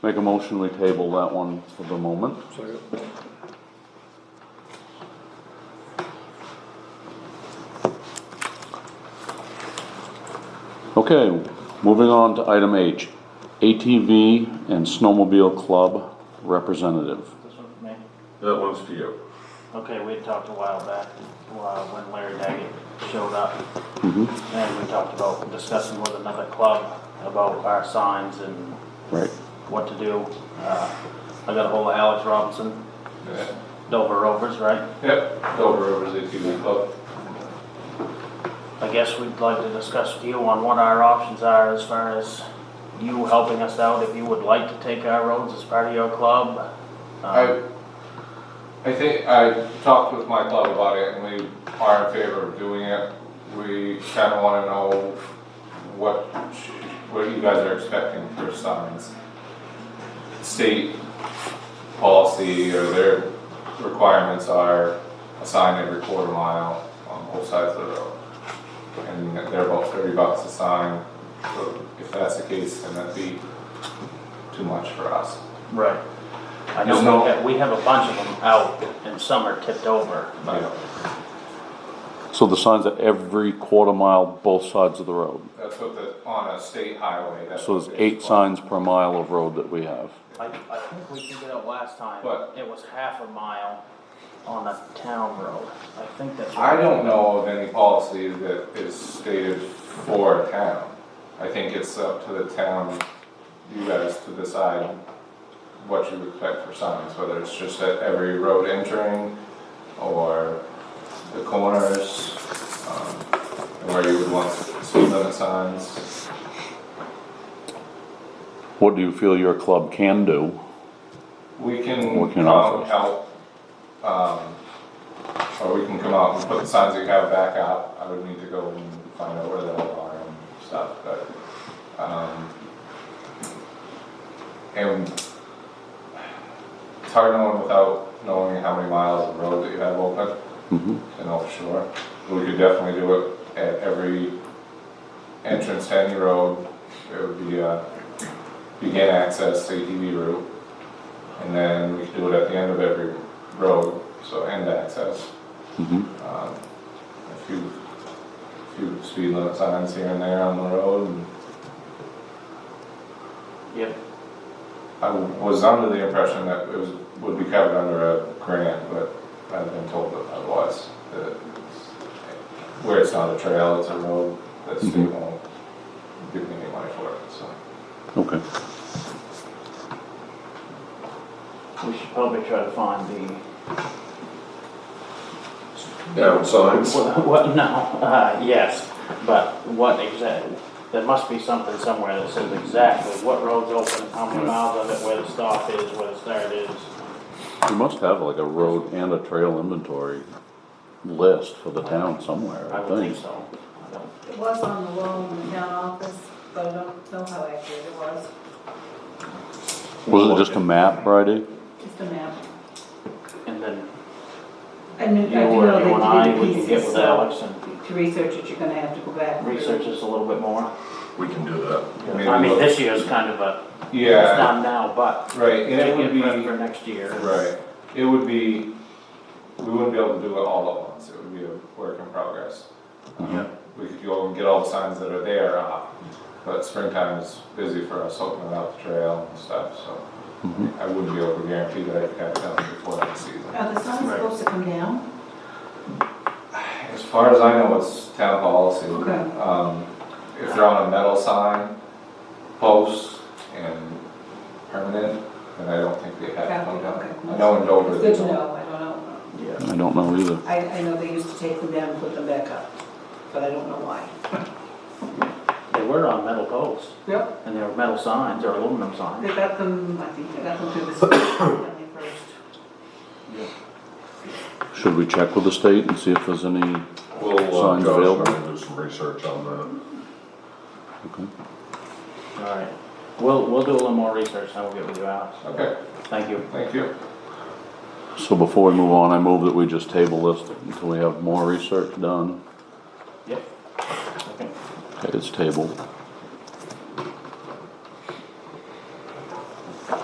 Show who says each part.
Speaker 1: Make a motion, we table that one for the moment.
Speaker 2: Second.
Speaker 1: Okay, moving on to item H, ATV and Snowmobile Club Representative.
Speaker 3: This one for me?
Speaker 4: That one's for you.
Speaker 3: Okay, we had talked a while back, uh, when Larry Daggett showed up. And we talked about discussing with another club about our signs and
Speaker 1: Right.
Speaker 3: what to do. Uh, I got ahold of Alex Robinson, Dover Rovers, right?
Speaker 4: Yep, Dover Rovers ATV Club.
Speaker 3: I guess we'd like to discuss with you on what our options are as far as you helping us out, if you would like to take our roads as part of your club. Uh,
Speaker 4: I, I think, I talked with my club about it and we are in favor of doing it. We kinda wanna know what, what you guys are expecting for signs. State policy or their requirements are a sign every quarter mile on both sides of the road. And they're about thirty bucks a sign, so if that's the case, then that'd be too much for us.
Speaker 3: Right. I know
Speaker 4: There's
Speaker 3: we
Speaker 4: no-
Speaker 3: have, we have a bunch of them out and some are tipped over, but
Speaker 4: Yeah.
Speaker 1: So the signs at every quarter mile, both sides of the road.
Speaker 4: That's what the, on a state highway, that's.
Speaker 1: So
Speaker 4: what
Speaker 1: there's
Speaker 4: they
Speaker 1: eight
Speaker 4: require.
Speaker 1: signs per mile of road that we have.
Speaker 3: I, I think we figured out last time,
Speaker 4: What?
Speaker 3: it was half a mile on a town road. I think that's
Speaker 4: I
Speaker 3: right.
Speaker 4: don't know of any policy that is stated for a town. I think it's up to the town, you guys to decide what you expect for signs, whether it's just at every road entering or the corners, um, and where you would want speed limit signs.
Speaker 1: What do you feel your club can do?
Speaker 4: We can
Speaker 1: We can
Speaker 4: come out
Speaker 1: offer.
Speaker 4: and help, um, or we can come out and put the signs that you have back up. I would need to go and find out where they all are and stuff, but, um, and it's hard knowing without knowing how many miles of road that you have open
Speaker 1: Mhm.
Speaker 4: to know for sure. We could definitely do it at every entrance to any road. It would be a begin access ATV route. And then we could do it at the end of every road, so end access.
Speaker 1: Mhm.
Speaker 4: Um, A few, few speed limit signs here and there on the road. and
Speaker 3: Yep,
Speaker 4: I was under the impression that it was, would be covered under a grant, but I've been told that otherwise. that it's- Where it's not a trail, it's a road, that state
Speaker 1: Mhm.
Speaker 4: won't give me any money for it, so.
Speaker 1: Okay.
Speaker 3: we should probably try to find the,
Speaker 5: down signs.
Speaker 3: what, what, no, uh, yes, but what exact, there must be something somewhere that says exactly what road's open, how many miles of it, where the stop is, where the start is.
Speaker 1: You must have like a road and a trail inventory list for the town somewhere,
Speaker 3: I
Speaker 1: I
Speaker 3: would think
Speaker 1: think.
Speaker 3: so. I don't-
Speaker 6: It was on the wall in the town office, but I don't know how accurate it was.
Speaker 1: Was it just a map, Bridie?
Speaker 6: Just a map.
Speaker 3: And then
Speaker 6: I knew, I do
Speaker 3: you or
Speaker 6: know
Speaker 3: you and
Speaker 6: that
Speaker 3: I,
Speaker 6: you
Speaker 3: we
Speaker 6: need
Speaker 3: can get
Speaker 6: pieces,
Speaker 3: with
Speaker 6: so
Speaker 3: Alex and
Speaker 6: to research it, you're gonna have to go back. through.
Speaker 3: research this a little bit more.
Speaker 5: We can do that.
Speaker 4: maybe
Speaker 3: I mean,
Speaker 4: look-
Speaker 3: this year's kind of a, it's
Speaker 4: Yeah,
Speaker 3: done now, but
Speaker 4: right, and it
Speaker 3: take
Speaker 4: would
Speaker 3: it
Speaker 4: be,
Speaker 3: ready for next year.
Speaker 4: right, it would be, we wouldn't be able to do it all at once, it would be a work in progress.
Speaker 5: Yeah.
Speaker 4: We could go and get all the signs that are there up, but springtime is busy for us opening up the trail and stuff, so. I wouldn't be able to guarantee that I could have done it before next season.
Speaker 6: Are the signs
Speaker 3: Right.
Speaker 6: supposed to come down?
Speaker 4: As far as I know, it's town policy.
Speaker 6: Okay.
Speaker 4: Um, If they're on a metal sign, post and permanent, then I don't think they have to come down.
Speaker 6: Okay.
Speaker 4: I know in Dover.
Speaker 6: It's
Speaker 4: they
Speaker 6: good to
Speaker 4: don't.
Speaker 6: know, I don't know.
Speaker 3: Yeah.
Speaker 1: I don't know either.
Speaker 6: I, I know they used to take them down and put them back up, but I don't know why.
Speaker 3: They were on metal posts,
Speaker 6: Yep.
Speaker 3: and they were metal signs or aluminum signs.
Speaker 6: They got them, I think they got them through the state when they first.
Speaker 1: Should we check with the state and see if there's any,
Speaker 5: We'll, uh,
Speaker 1: Signs
Speaker 5: Josh,
Speaker 1: available.
Speaker 5: we're gonna do some research on that.
Speaker 1: okay,
Speaker 3: All right. We'll, we'll do a little more research, and we'll get with you, Alex.
Speaker 4: Okay,
Speaker 3: Thank you.
Speaker 4: thank you.
Speaker 1: so before we move on, I move that we just table this until we have more research done.
Speaker 3: Yep. Okay.
Speaker 1: Okay, it's tabled.